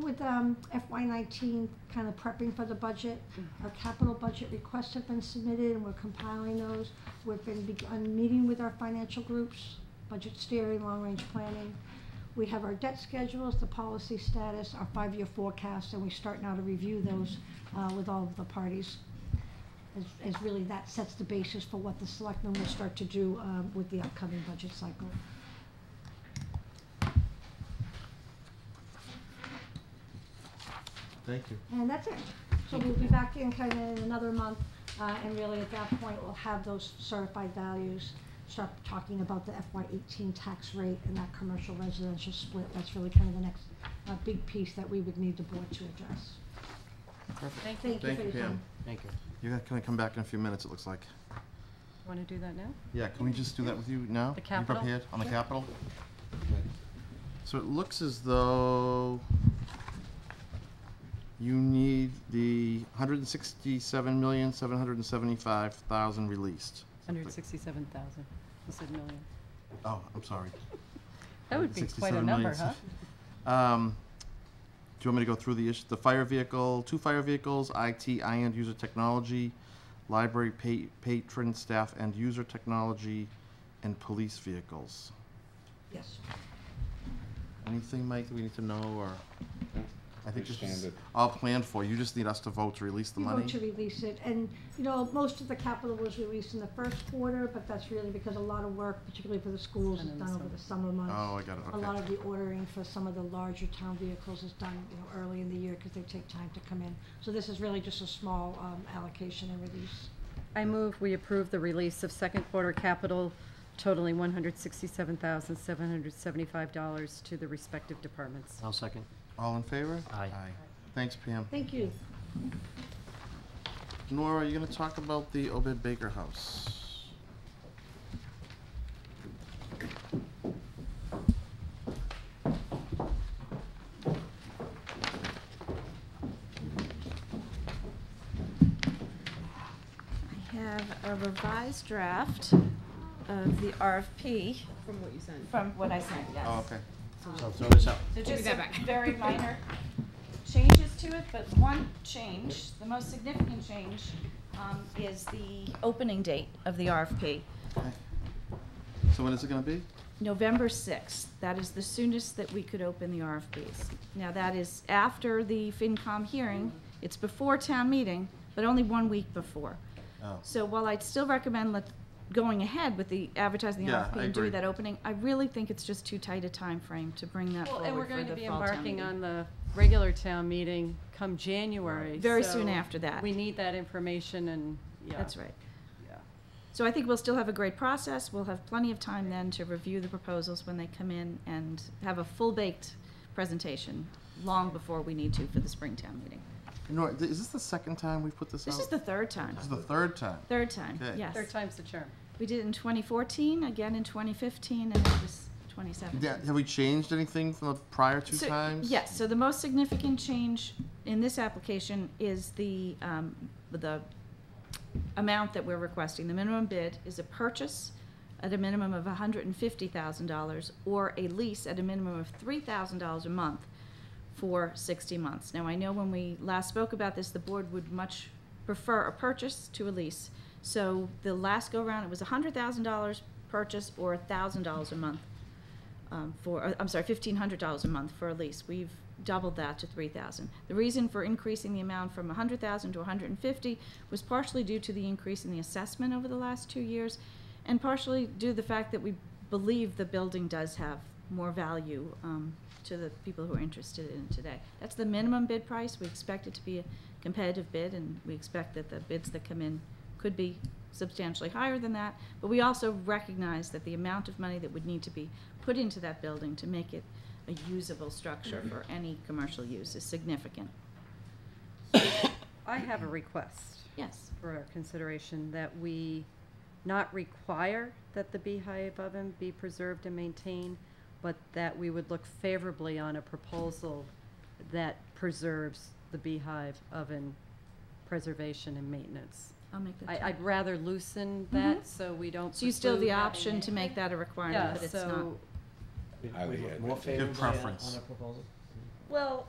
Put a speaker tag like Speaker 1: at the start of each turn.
Speaker 1: with um, FY19 kind of prepping for the budget. Our capital budget requests have been submitted and we're compiling those. We've been begun meeting with our financial groups, budget steering, long-range planning. We have our debt schedules, the policy status, our five-year forecast, and we start now to review those uh, with all of the parties. As, as really that sets the basis for what the selectmen will start to do um, with the upcoming budget cycle.
Speaker 2: Thank you.
Speaker 1: And that's it. So we'll be back in kind of in another month, uh, and really at that point, we'll have those certified values, start talking about the FY eighteen tax rate and that commercial residential split. That's really kind of the next, uh, big piece that we would need the board to address.
Speaker 3: Perfect.
Speaker 4: Thank you.
Speaker 1: Thank you
Speaker 2: Thank
Speaker 1: for
Speaker 2: you,
Speaker 1: your time.
Speaker 2: Pam.
Speaker 3: Thank you.
Speaker 2: You're gonna- gonna come back in a few minutes, it looks like.
Speaker 4: Want to do that now?
Speaker 2: Yeah, can we just do that with you now?
Speaker 4: The
Speaker 2: You
Speaker 4: capital?
Speaker 2: prepared on the
Speaker 4: Yeah.
Speaker 2: capital? Okay. So it looks as though you need the hundred and sixty-seven million, seven hundred and seventy-five thousand released.
Speaker 4: Hundred sixty-seven thousand. You said million.
Speaker 2: Oh, I'm sorry.
Speaker 4: That would be quite a
Speaker 2: 67
Speaker 4: number,
Speaker 2: million,
Speaker 4: huh?
Speaker 2: Um, do you want me to go through the issue, the fire vehicle, two fire vehicles, IT, I end user technology, library pa- patron, staff end user technology, and police vehicles?
Speaker 1: Yes.
Speaker 2: Anything, Mike, that we need to know, or? I think this is
Speaker 5: Standard.
Speaker 2: all planned for, you just need us to vote to release the
Speaker 1: You
Speaker 2: money?
Speaker 1: vote to release it, and, you know, most of the capital was released in the first quarter, but that's really because a lot of work, particularly for the schools, is
Speaker 4: Done in the
Speaker 1: done over
Speaker 4: summer.
Speaker 1: the summer months.
Speaker 2: Oh, I got it,
Speaker 1: A lot
Speaker 2: okay.
Speaker 1: of the ordering for some of the larger town vehicles is done, you know, early in the year, because they take time to come in. So this is really just a small um, allocation and release.
Speaker 4: I move we approve the release of second quarter capital totaling one hundred sixty-seven thousand, seven hundred seventy-five dollars to the respective departments.
Speaker 3: I'll second.
Speaker 2: All in favor?
Speaker 3: Aye.
Speaker 2: Thanks, Pam.
Speaker 1: Thank you.
Speaker 2: Nora, you gonna talk about the Obed Baker House?
Speaker 6: I have a revised draft of the RFP
Speaker 7: From what you sent.
Speaker 6: from what I sent, yes.
Speaker 2: Oh, okay.
Speaker 3: So throw this out.
Speaker 6: So
Speaker 7: Give me
Speaker 6: just
Speaker 7: that
Speaker 6: some
Speaker 7: back.
Speaker 6: very minor changes to it, but one change, the most significant change, um, is the opening date of the RFP.
Speaker 2: Okay. So when is it gonna be?
Speaker 6: November 6th, that is the soonest that we could open the RFPs. Now, that is after the FinCom hearing, it's before town meeting, but only one week before.
Speaker 2: Oh.
Speaker 6: So while I'd still recommend let, going ahead with the advertising the
Speaker 2: Yeah,
Speaker 6: RFP
Speaker 2: I
Speaker 6: and doing
Speaker 2: agree.
Speaker 6: that opening, I really think it's just too tight a time frame to bring that
Speaker 4: Well,
Speaker 6: forward
Speaker 4: and we're
Speaker 6: for
Speaker 4: going to
Speaker 6: the
Speaker 4: be
Speaker 6: fall town
Speaker 4: embarking
Speaker 6: meeting.
Speaker 4: on the regular town meeting come January.
Speaker 6: Very soon
Speaker 4: so
Speaker 6: after that.
Speaker 4: We need that information and, yeah.
Speaker 6: That's right.
Speaker 4: Yeah.
Speaker 6: So I think we'll still have a great process. We'll have plenty of time then to review the proposals when they come in and have a full-baked presentation long before we need to for the spring town meeting.
Speaker 2: Nora, th- is this the second time we've put this out?
Speaker 6: This is the third time.
Speaker 2: This is the third time.
Speaker 6: Third time,
Speaker 2: Okay.
Speaker 6: yes.
Speaker 4: Third time's the charm.
Speaker 6: We did it in 2014, again in 2015, and it was 2017.
Speaker 2: Yeah, have we changed anything from the prior two
Speaker 6: So-
Speaker 2: times?
Speaker 6: Yes, so the most significant change in this application is the, um, the amount that we're requesting. The minimum bid is a purchase at a minimum of hundred and fifty thousand dollars or a lease at a minimum of three thousand dollars a month for sixty months. Now, I know when we last spoke about this, the board would much prefer a purchase to a lease. So the last go-round, it was hundred thousand dollars purchase or thousand dollars a month um, for, uh, I'm sorry, fifteen hundred dollars a month for a lease. We've doubled that to three thousand. The reason for increasing the amount from a hundred thousand to a hundred and fifty was partially due to the increase in the assessment over the last two years, and partially due to the fact that we believe the building does have more value um, to the people who are interested in it today. That's the minimum bid price. We expect it to be a competitive bid, and we expect that the bids that come in could be substantially higher than that, but we also recognize that the amount of money that would need to be put into that building to make it a usable structure for any commercial use is significant.
Speaker 4: I have a request.
Speaker 6: Yes.
Speaker 4: for our consideration that we not require that the beehive oven be preserved and maintained, but that we would look favorably on a proposal that preserves the beehive oven preservation and maintenance.
Speaker 6: I'll make that.
Speaker 4: I,
Speaker 6: change.
Speaker 4: I'd rather loosen
Speaker 6: Mhm.
Speaker 4: that so we don't.
Speaker 6: So you still have
Speaker 4: pursue
Speaker 6: the
Speaker 4: having
Speaker 6: option
Speaker 4: it-
Speaker 6: to make that a requirement,
Speaker 4: Yeah,
Speaker 6: but it's not.
Speaker 4: so,
Speaker 5: Highly
Speaker 3: More
Speaker 2: Give
Speaker 5: advantageous.
Speaker 3: favorably on-
Speaker 2: preference.
Speaker 3: on a proposal?
Speaker 4: well,